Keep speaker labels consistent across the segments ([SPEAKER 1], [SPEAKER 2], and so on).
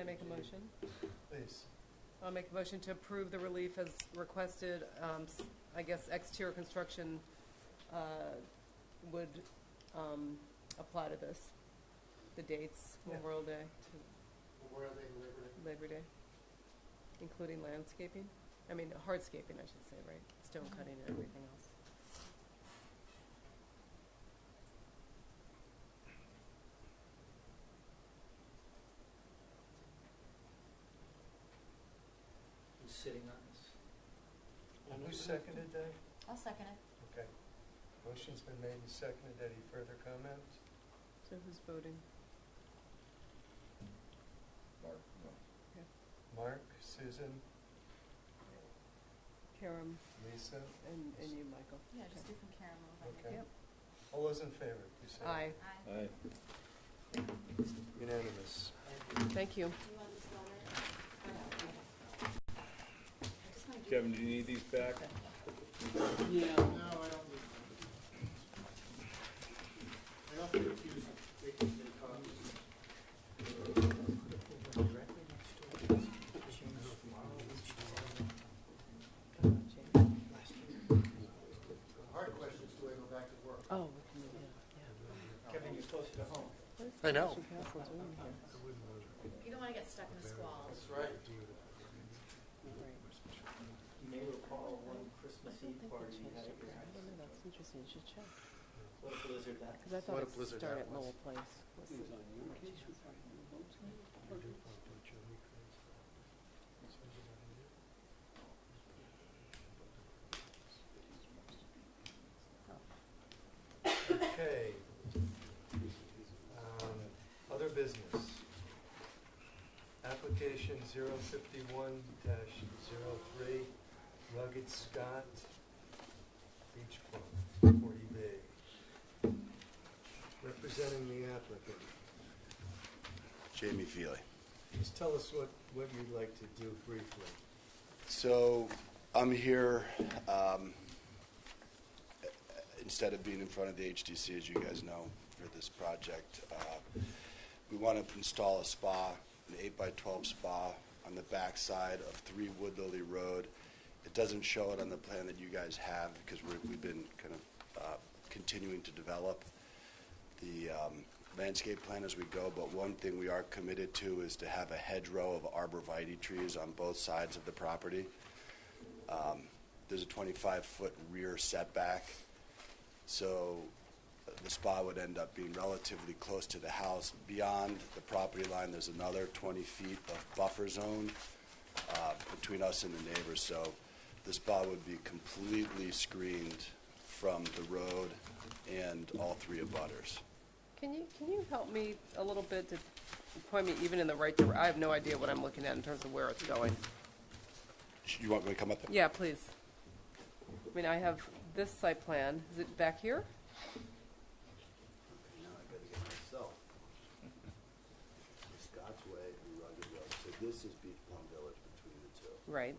[SPEAKER 1] I make a motion?
[SPEAKER 2] Please.
[SPEAKER 1] I'll make a motion to approve the relief as requested. Um, s- I guess exterior construction uh, would um, apply to this, the dates,
[SPEAKER 2] Yeah.
[SPEAKER 1] Memorial Day to
[SPEAKER 2] Memorial Day, Labor Day.
[SPEAKER 1] Labor Day, including landscaping, I mean hardscaping, I should say, right? Stone cutting and everything else.
[SPEAKER 3] Who's sitting on this?
[SPEAKER 2] And who seconded that?
[SPEAKER 4] I'll second it.
[SPEAKER 2] Okay. Motion's been made and seconded. Any further comments?
[SPEAKER 1] So who's voting?
[SPEAKER 5] Mark, no.
[SPEAKER 2] Mark, Susan,
[SPEAKER 1] Karam
[SPEAKER 2] Lisa?
[SPEAKER 1] and, and you, Michael.
[SPEAKER 4] Yeah, just do from Karen a little bit.
[SPEAKER 2] Okay.
[SPEAKER 1] Yep.
[SPEAKER 2] All those in favor, please say
[SPEAKER 1] Aye,
[SPEAKER 4] Aye.
[SPEAKER 5] Aye.
[SPEAKER 2] Unanimous.
[SPEAKER 1] thank you.
[SPEAKER 4] Do you want this letter? Or no? Okay. I just wanna do-
[SPEAKER 5] Kevin, do you need these back?
[SPEAKER 3] Yeah.
[SPEAKER 6] No, I don't need them. I also refuse to take the copies.
[SPEAKER 3] Directly next door. Change tomorrow, which
[SPEAKER 1] Uh,
[SPEAKER 3] last year.
[SPEAKER 6] The hard questions do I go back to work?
[SPEAKER 1] Oh, we can, yeah,
[SPEAKER 3] Kevin, you're closer to home.
[SPEAKER 1] yeah.
[SPEAKER 2] I know.
[SPEAKER 4] You don't wanna get stuck in a squall.
[SPEAKER 6] That's right.
[SPEAKER 3] You may recall one Christmas Eve party you had at your house.
[SPEAKER 1] that's interesting, you should check.
[SPEAKER 3] What a blizzard that
[SPEAKER 1] Because I
[SPEAKER 2] What
[SPEAKER 1] thought
[SPEAKER 2] a blizzard
[SPEAKER 1] it started
[SPEAKER 2] that
[SPEAKER 1] at
[SPEAKER 2] was.
[SPEAKER 1] Lowell Place. Was it-
[SPEAKER 2] Okay. Um, Other business. Application 051-03, Rugged Scott Beach Club, 40B. Representing the applicant,
[SPEAKER 7] Jamie Feely.
[SPEAKER 2] just tell us what, what you'd like to do briefly.
[SPEAKER 7] So I'm here, um, instead of being in front of the HDC, as you guys know, for this project, uh, we want to install a spa, an eight by twelve spa on the backside of Three Wood Lily Road. It doesn't show it on the plan that you guys have because we're, we've been kind of uh, continuing to develop the um, landscape plan as we go, but one thing we are committed to is to have a hedgerow of arborvitae trees on both sides of the property. Um, There's a 25-foot rear setback, so uh, the spa would end up being relatively close to the house. Beyond the property line, there's another 20 feet of buffer zone uh, between us and the neighbors, so the spa would be completely screened from the road and all three abutters.
[SPEAKER 1] Can you, can you help me a little bit to point me even in the right direction? I have no idea what I'm looking at in terms of where it's going.
[SPEAKER 7] You want me to come up there?
[SPEAKER 1] Yeah, please. I mean, I have this site plan. Is it back here?
[SPEAKER 7] Now I gotta get myself. Scott's Way and Rugged Road, so this is Beach Plum Village between the two.
[SPEAKER 1] Right.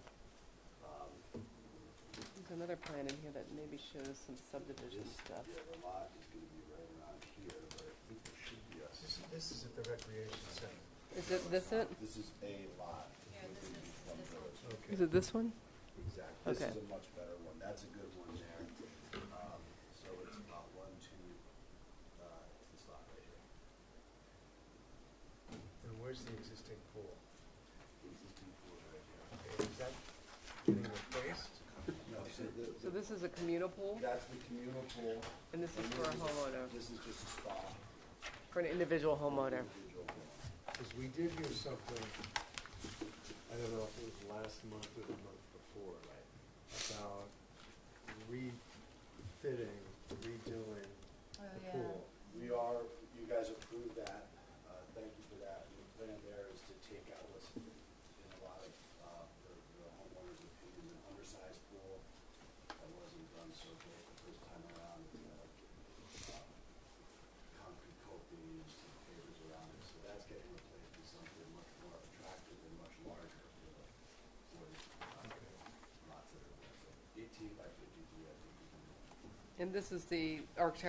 [SPEAKER 1] There's another plan in here that maybe shows some subdivision
[SPEAKER 7] This,
[SPEAKER 1] stuff.
[SPEAKER 7] yeah, the lot is gonna be right around here, but I think there should be a,
[SPEAKER 2] This- This is at the recreation center.
[SPEAKER 1] Is it this it?
[SPEAKER 7] this is a lot.
[SPEAKER 4] Yeah,
[SPEAKER 7] within
[SPEAKER 4] this is-
[SPEAKER 7] Beach Plum
[SPEAKER 4] this
[SPEAKER 7] Village.
[SPEAKER 1] Is it this one?
[SPEAKER 7] Exactly, this
[SPEAKER 1] Okay.
[SPEAKER 7] is a much better one, that's a good one there. Um, so it's about one, two, uh, it's this lot right here.
[SPEAKER 2] And where's the existing pool?
[SPEAKER 7] This is two, four right here.
[SPEAKER 2] Okay, Is that getting replaced?
[SPEAKER 7] No, so the,
[SPEAKER 1] So
[SPEAKER 7] the-
[SPEAKER 1] this is a communal pool,
[SPEAKER 7] that's the communal pool.
[SPEAKER 1] and this is
[SPEAKER 7] and
[SPEAKER 1] for a homeowner,
[SPEAKER 7] This is just a spa.
[SPEAKER 1] for an individual homeowner.
[SPEAKER 7] individual pool.
[SPEAKER 2] Because we did hear something, I don't know if it was last month or the month before, about refitting, redoing
[SPEAKER 4] Oh,
[SPEAKER 2] the
[SPEAKER 4] yeah.
[SPEAKER 2] pool.
[SPEAKER 7] We are, you guys approved that, uh, thank you for that. And The plan there is to take out what's in a lot of, uh, the the homeowners opinion, an undersized pool that wasn't done so great the first time around. It's got, um, concrete coping and some pavers around it, so that's getting replaced with something much more attractive and much larger for the, for the, uh, lots that are there. So Eighteen by fifty-three, I think, is the
[SPEAKER 1] And this is the architect